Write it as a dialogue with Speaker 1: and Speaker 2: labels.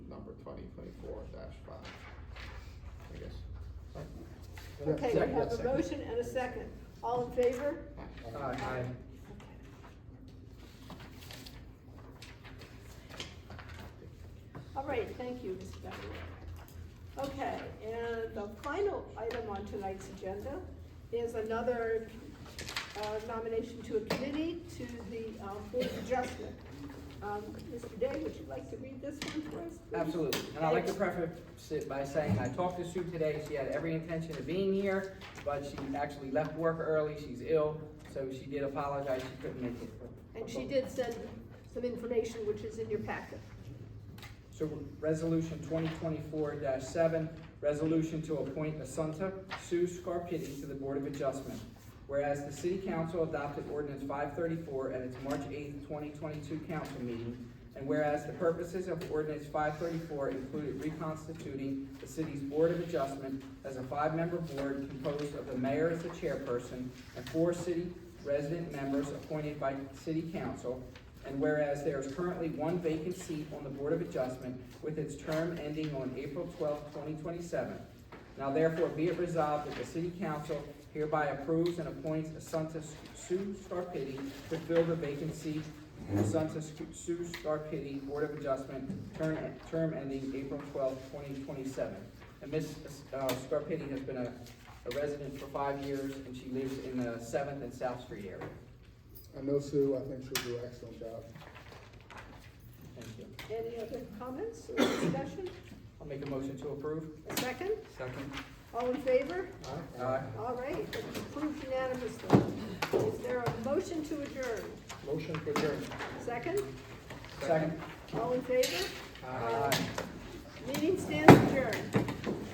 Speaker 1: twenty twenty-four dash five, I guess. Right?
Speaker 2: Okay, we
Speaker 3: Second,
Speaker 2: have a
Speaker 3: second.
Speaker 2: motion and a second. All in favor?
Speaker 1: Aye.
Speaker 4: Uh,
Speaker 3: Aye.
Speaker 2: All right, thank you, Mr. Beverly. Okay, and the final item on tonight's agenda is another uh, nomination to a committee to the um, Board of Adjustment. Um, Mr. Day, would you like to read this one for us? please?
Speaker 4: Absolutely, and I'd like to preface it by saying, I talked to Sue today, she had every intention of being here, but she actually left work early, she's ill, so she did apologize, she couldn't make it.
Speaker 2: And she did send some information, which is in your packet.
Speaker 4: So, resolution twenty twenty-four seven, resolution to appoint Assunta Sue Scarpitti to the Board of Adjustment. Whereas the city council adopted ordinance five thirty-four at its March eighth, twenty twenty-two council meeting, and whereas the purposes of ordinance five thirty-four included reconstituting the city's Board of Adjustment as a five-member board composed of the mayor as the chairperson and four city resident members appointed by city council, and whereas there is currently one vacant seat on the Board of Adjustment with its term ending on April twelfth, twenty twenty-seven. Now therefore be it resolved that the City Council hereby approves and appoints Assunta Sue Scarpitti to fill the vacant seat of Assunta Sue Scarpitti, Board of Adjustment, term, term ending April twelfth, twenty twenty-seven. And Ms. uh, Scarpitti has been a, a resident for five years and she lives in the Seventh and South Street area.
Speaker 3: I know Sue, I think she'll do an excellent job.
Speaker 4: Thank you.
Speaker 2: Any other comments or discussion?
Speaker 4: I'll make a motion to approve.
Speaker 2: A second?
Speaker 4: Second.
Speaker 2: All in favor?
Speaker 4: Aye.
Speaker 2: All right, it's approved unanimously. Is there a motion to adjourn?
Speaker 3: Motion for adjournment.
Speaker 2: Second?
Speaker 4: Second.
Speaker 2: All in favor?
Speaker 3: Aye.